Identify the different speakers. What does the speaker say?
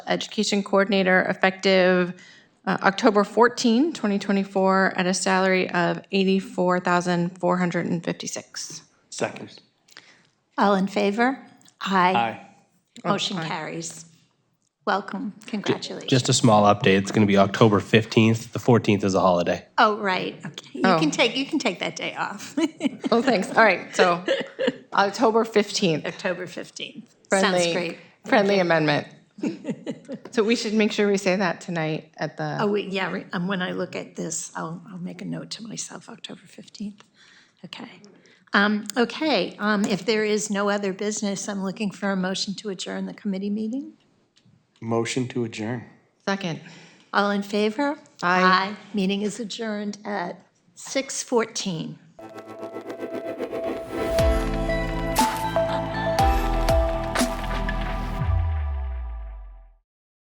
Speaker 1: Education Coordinator effective uh, October 14, 2024, at a salary of $84,456.
Speaker 2: Second.
Speaker 3: All in favor? Aye.
Speaker 2: Aye.
Speaker 3: Motion carries. Welcome, congratulations.
Speaker 2: Just a small update. It's going to be October 15th. The 14th is a holiday.
Speaker 3: Oh, right, okay. You can take, you can take that day off,
Speaker 1: Oh, thanks. All right, so October 15th,
Speaker 3: October 15th. Sounds
Speaker 1: friendly,
Speaker 3: great.
Speaker 1: friendly amendment. So we should make sure we say that tonight at the,
Speaker 3: Oh, we- yeah, re- um, when I look at this, I'll, I'll make a note to myself, October 15th. Okay. Um, Okay, um, if there is no other business, I'm looking for a motion to adjourn the committee meeting.
Speaker 2: Motion to adjourn.
Speaker 1: second.
Speaker 3: All in favor?
Speaker 1: Aye.
Speaker 3: Meeting is adjourned at 6:14.